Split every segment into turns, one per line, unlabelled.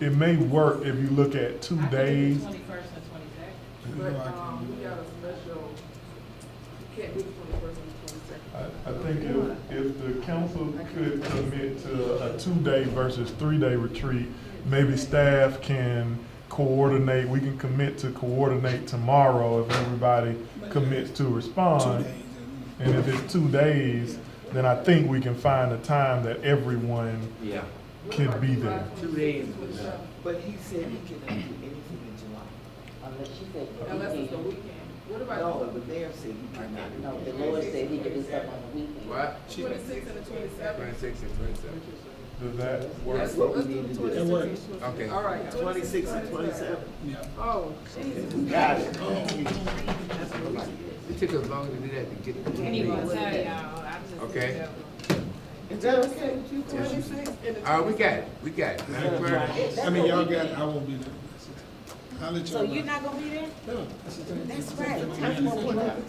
it may work if you look at two days.
Twenty-first and twenty-second.
But, um, we got a special, can't do the twenty-first and twenty-second.
I, I think if, if the council could commit to a two-day versus three-day retreat, maybe staff can coordinate, we can commit to coordinate tomorrow if everybody commits to respond. And if it's two days, then I think we can find a time that everyone
Yeah.
can be there.
Two days was enough.
But he said he cannot do anything in July.
Unless she said
Unless it's Oh, the
weekend.
weekend. What
No,
about
the mayor said he cannot. do
No, the
anything.
Lord said he could do stuff on the weekend.
What?
the twenty-sixth and the twenty-seventh?
Twenty-six and twenty-seven.
Does that work?
Let's,
what we
let's do
need
the
to do.
twenty-sixth and
That works.
twenty seventh.
Okay.
All right.
Twenty-six and twenty-seven.
Oh, Jesus.
Got it.
It took us longer to do that to get.
Anyway, sorry, y'all, I just.
Okay.
Is that okay with you?
Twenty-sixth and the.
All right, we got it, we got it. Madam Clerk,
I mean, y'all got, I won't be there. I'll let y'all.
So you're
know.
not gonna be there?
No, that's the thing.
That's right.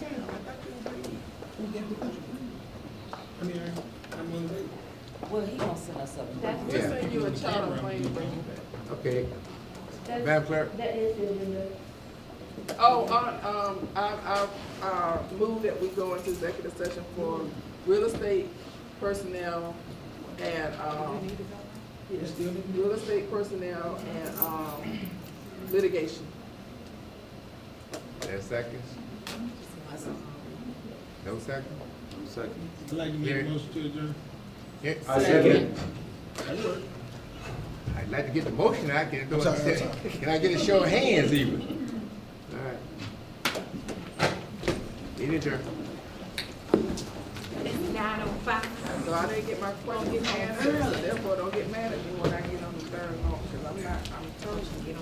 I mean, I- I'm on the way.
Well, he gonna send us something.
We'll send you a charter plane to bring you back.
okay. Madam Clerk,
That is the agenda.
Oh, uh, um, I, I, uh, move that we go into executive session for real estate personnel and, um, yes, real estate personnel and, um, litigation.
ten seconds? No second?
I'd like to make a motion to adjourn.
Yes.
I second.
I'd like to get the motion, I can't do
I'm sorry, I'm
it. Can I get a show of hands even? All right. Any turn?
It's nine oh five.
So I didn't get my question answered, so therefore don't get mad at me when I get on the third one, because I'm not, I'm totally get on.